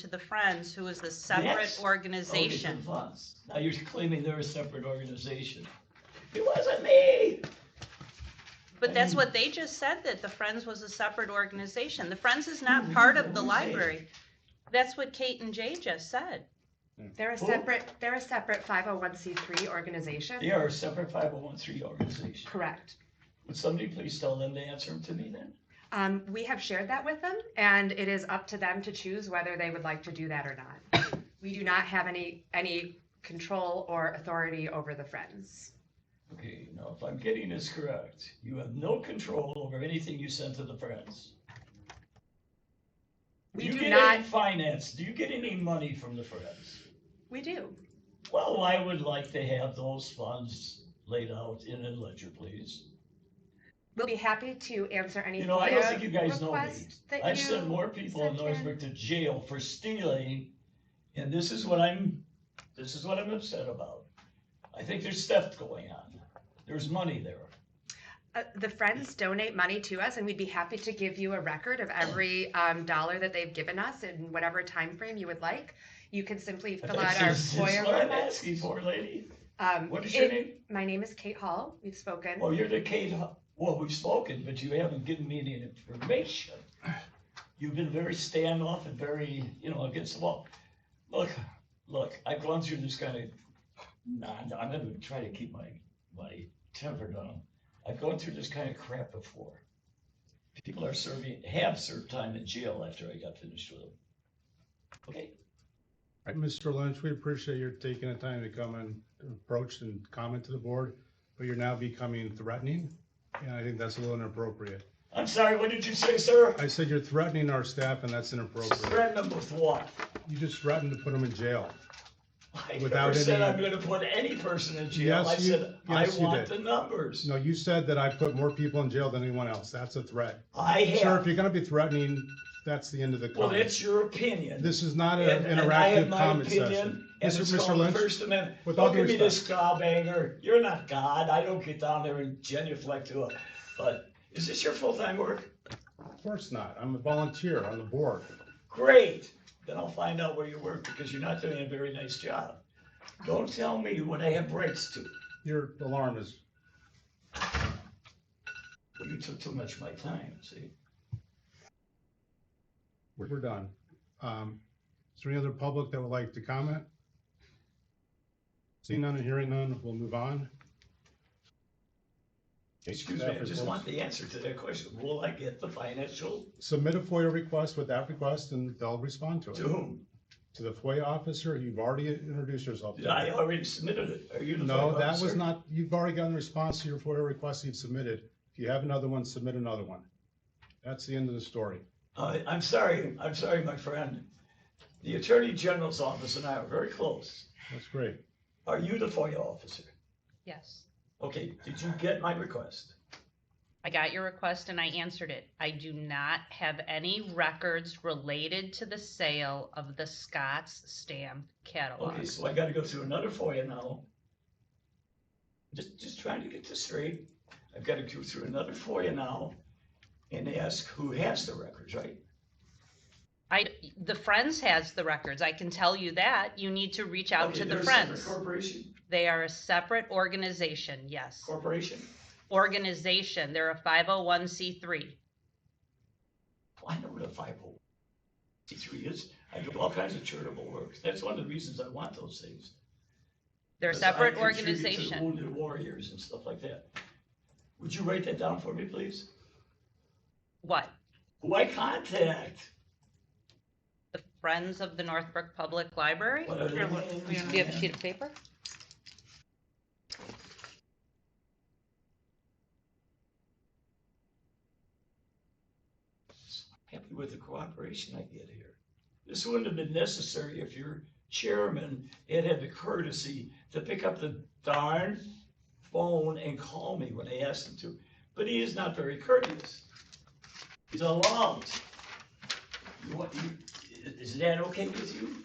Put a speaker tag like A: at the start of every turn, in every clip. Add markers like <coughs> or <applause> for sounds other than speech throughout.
A: to the Friends, who is a separate
B: Yes. Oh,
A: organization.
B: funds. Now you're claiming they're a separate organization. It wasn't me.
A: But that's
B: Mm.
A: what they just said, that the Friends was a separate organization. The Friends is not
B: Mm-hmm.
A: part of the library. That's what Kate and Jay just said.
C: They're a
B: Who?
C: separate, they're a separate five oh one C three organization?
B: They are a separate five oh one three organization.
C: Correct.
B: Would somebody please tell them to answer them to me then?
C: Um, we have shared that with them and it is up to them to choose whether they would like to do that or
B: <coughs>
C: not. We do not have any, any control or authority over the Friends.
B: Okay, now if I'm getting this correct, you have no control over anything you send to the Friends.
C: We
B: you
C: do
B: get
C: not,
B: any finance? Do you get any money from the Friends?
C: we do.
B: Well, I would like to have those funds laid out in a ledger, please.
C: We'll be happy to answer any.
B: You know, I don't
C: FOIA
B: think you guys know me.
C: requests that
B: I've
C: you
B: sent more people in
C: sent in.
B: Northbrook to jail for stealing, and this is what I'm, this is what I'm upset about. I think there's theft going on. There's money there.
C: Uh, the friends donate money to us, and we'd be happy to give you a record of every um, dollar that they've given us in whatever time frame you would like. You can simply fill out our
B: That's that's what
C: FOIA
B: I'm
C: request.
B: asking for, lady.
C: Um,
B: What is your
C: it-
B: name? Oh,
C: My name is Kate Hall. We've spoken.
B: Well, you're the Kate, Hu- well, we've spoken, but you haven't given me any information. You've been very standoff and very, you know, against the wall. Look, look, I've gone through this kind of, nah, I'm gonna try to keep my, my temper down. I've gone through this kind of crap before. People are serving, have served time in jail after I got finished with them. Okay,
D: Mr. Lynch, we appreciate your taking the time to come and approach and comment to the board, but you're now becoming threatening, and I think that's a little inappropriate.
B: I'm sorry, what did you say, sir?
D: I said you're threatening our staff, and that's inappropriate.
B: Threaten them with what?
D: You just threatened to put them in jail.
B: I
D: Without
B: never said
D: any-
B: I'm gonna put any person in jail. I
D: Yes, you-
B: said, I
D: yes, you
B: want the
D: did.
B: numbers.
D: No, you said that I put more people in jail than anyone else. That's a threat.
B: I
D: Sir, if
B: have,
D: you're gonna be threatening, that's the end of the
B: well,
D: comment.
B: that's your opinion.
D: This is not an
B: And- and I have
D: interactive
B: my
D: comment
B: opinion,
D: session.
B: And
D: Mr.
B: it's
D: Mr.
B: called the
D: Lynch,
B: First Amendment.
D: with all
B: Don't
D: due
B: give me this
D: respect,
B: gobbanger. You're not God. I don't get down there and genuflect to a, but is this your full-time work?
D: of course not. I'm a volunteer on the board.
B: Great. Then I'll find out where you work because you're not doing a very nice job. Don't tell me what I have rights to.
D: Your alarm is
B: Well, you took too much of my time, see?
D: We're we're done. Um, Is there any other public that would like to comment? Seeing none and hearing none, we'll move on.
B: Excuse me, I just want the answer to that question. Will I get the financial
D: Submit a FOIA request with that request and they'll respond to
B: to
D: it.
B: whom?
D: To the FOIA officer, you've already introduced yourself. to
B: Did I already submitted it? Are you the?
D: No,
B: fuck
D: that was
B: officer?
D: not, you've already gotten a response to your FOIA request you've submitted. If you have another one, submit another one. That's the end of the story.
B: Uh, I'm sorry, I'm sorry, my friend. The Attorney General's office and I are very close.
D: That's great.
B: Are you the FOIA officer?
A: Yes.
B: Okay, did you get my request?
A: I got your request and I answered it. I do not have any records related to the sale of the Scott's stamp catalog.
B: Okay, so I gotta go through another FOIA now. Just, just trying to get this straight. I've gotta go through another FOIA now and ask who has the records, right?
A: I, the Friends has the records. I can tell you that. You need to reach out
B: Okay,
A: to the
B: they're a separate
A: Friends.
B: Corporation,
A: They are a separate organization, yes.
B: corporation?
A: Organization, they're a 501c3.
B: Well, I know what a five oh one three is. I do all kinds of charitable work. That's one of the reasons I want those things.
A: They're a
B: because I
A: separate
B: contribute to the
A: organization.
B: Wounded warriors and stuff like that. Would you write that down for me, please?
A: What?
B: Who I contact?
A: The Friends of the Northbrook Public Library?
B: What are their names?
A: Do you have a sheet of paper?
B: Happy with the cooperation I get here. This wouldn't have been necessary if your chairman had had the courtesy to pick up the darn phone and call me when I asked him to. But he is not very courteous. He's alarmed. You want, you, is that okay with you?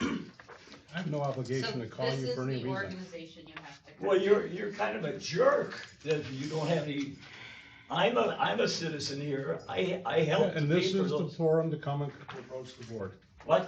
D: I have no obligation to call you for any reason.
A: organization you have to.
B: Well, you're, you're kind of a jerk that you don't have any, I'm a, I'm a citizen here. I, I helped
D: And this
B: pay for
D: is the
B: those.
D: forum to come and approach the board.
B: What?